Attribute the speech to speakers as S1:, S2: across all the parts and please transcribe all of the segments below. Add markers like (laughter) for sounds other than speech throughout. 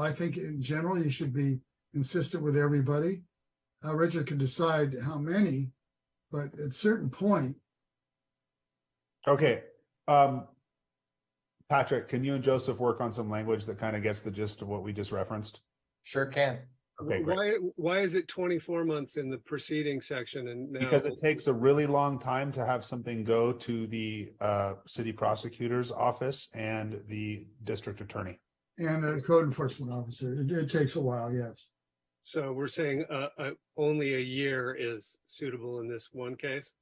S1: I think in general, you should be consistent with everybody. Uh, Richard can decide how many, but at certain point,
S2: Okay, um. Patrick, can you and Joseph work on some language that kind of gets the gist of what we just referenced?
S3: Sure can.
S2: Okay, great.
S4: Why, why is it twenty-four months in the preceding section and now?
S2: Because it takes a really long time to have something go to the uh city prosecutor's office and the district attorney.
S1: and a code enforcement officer, it, it takes a while, yes.
S4: So we're saying, uh, uh, only a year is suitable in this one case?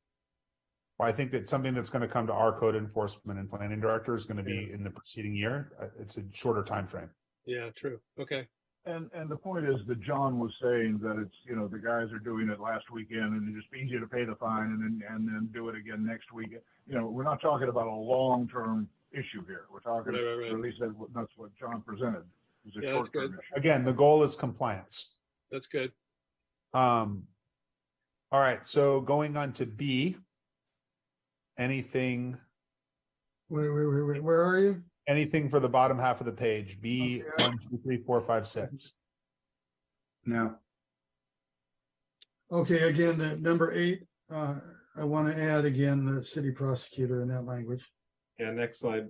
S2: I think that something that's going to come to our code enforcement and planning director is going to be in the preceding year. Uh, It's a shorter time frame.
S4: Yeah, true. Okay.
S5: And, and the point is that John was saying that it's, you know, the guys are doing it last weekend and it's just easier to pay the fine and then, and then do it again next week. You know, we're not talking about a long-term issue here. We're talking,
S4: Right, right, right.
S5: or at least that's what, that's what John presented. is a
S4: Yeah, that's good.
S5: short-term issue.
S2: Again, the goal is compliance.
S4: That's good.
S2: Um, all right, so going on to B. Anything,
S1: Wait, wait, wait, wait, where are you?
S2: anything for the bottom half of the um, page, B,
S1: Okay.
S2: one, two, three, four, five, six.
S6: No,
S1: Okay, again, the number eight, uh, I want to add again, the city prosecutor in that language.
S7: Yeah, next slide.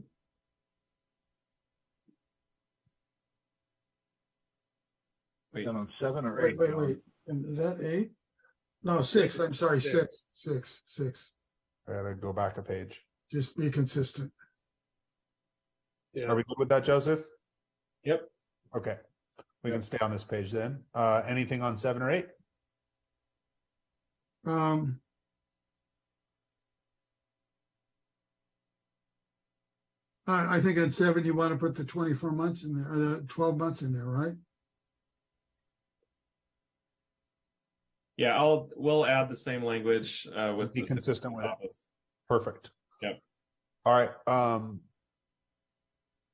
S7: Wait.
S5: Then on seven or
S1: Wait,
S5: eight.
S1: wait,
S5: John.
S1: wait, and is that eight? No, six, I'm sorry, six, six, six,
S2: I gotta go back a page.
S1: just be consistent.
S4: Yeah.
S2: Are we good with that, Joseph?
S7: Yep.
S2: Okay, we can stay on this page then. Uh, anything on seven or eight?
S1: Um. I, I think on seven, you want to put the twenty-four months in there, or the twelve months in there, right?
S7: Yeah, I'll, we'll add the same language, uh, with.
S2: Be
S7: the-
S2: consistent with it. Perfect.
S7: Yep.
S2: All right, um,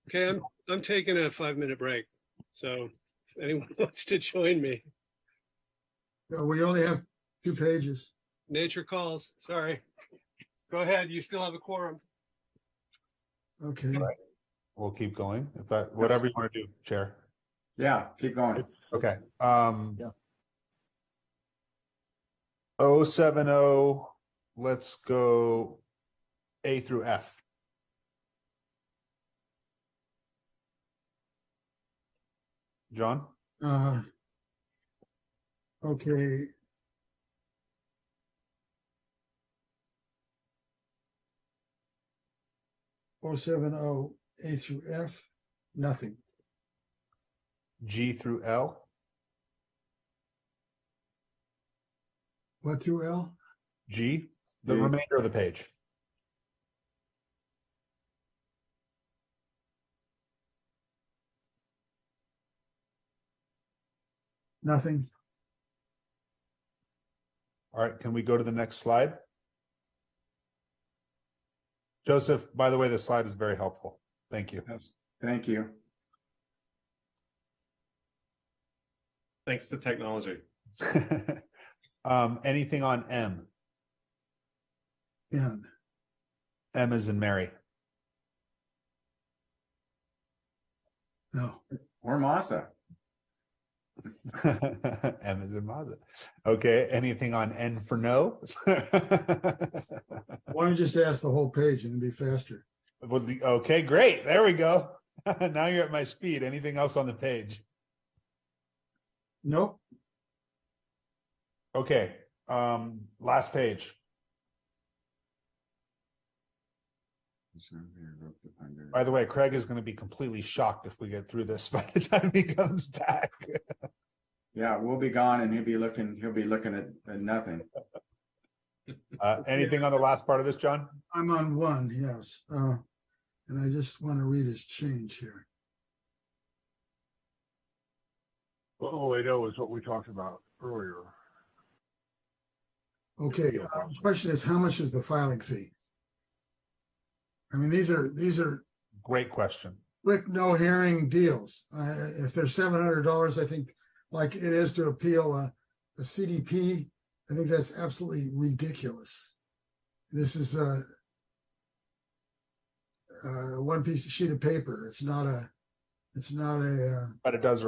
S4: Okay, I'm, I'm taking a five-minute break. So if anyone (laughs) wants to join me,
S1: Uh, We only have two pages.
S4: nature calls. Sorry. Go ahead. You still have a quorum.
S1: Okay,
S2: we'll keep going if that, whatever you want to do, Chair.
S6: yeah, keep going.
S5: It's-
S2: Okay, um.
S5: Yeah.
S2: Oh, seven, oh, let's go A through F. John,
S1: uh. Okay. Oh, seven, oh, A through F, nothing.
S2: G through L,
S1: What through L?
S2: G, the
S6: G.
S2: remainder of the page.
S1: Nothing.
S2: All right, can we go to the next slide? Joseph, by the way, this slide is very helpful. Thank you. (laughs)
S6: Yes. Thank you.
S7: Thanks to technology.
S2: Um, anything on M?
S1: N,
S2: M is in Mary.
S1: no.
S6: Or Masa.
S2: (laughs) M is in Mazda. Okay, anything on N for no? (laughs)
S1: Why don't you just ask the whole page and it'd be faster?
S2: Well, the- okay, great. There we go. (laughs) now you're at my speed. Anything else on the page?
S1: Nope,
S2: Okay, um, last page. By the way, Craig is going to be completely shocked if we get through this (laughs) by the time he comes back.
S6: Yeah, we'll be gone and he'll be looking, he'll be looking at, at nothing.
S2: Uh, anything on the last part of this, John?
S1: I'm on one, yes. Uh, and I just want to read his change here.
S5: Oh, wait, oh, is what we talked about earlier.
S1: Okay, uh,
S6: um,
S1: question is, how much is the filing fee? I mean, these are, these are
S2: Great question.
S1: quick, no hearing deals. Uh, if they're seven hundred dollars, I think, like it is to appeal a, a CDP, I think that's absolutely ridiculous. This is a uh, one piece of sheet of paper. It's not a, it's not a, uh,
S2: But it does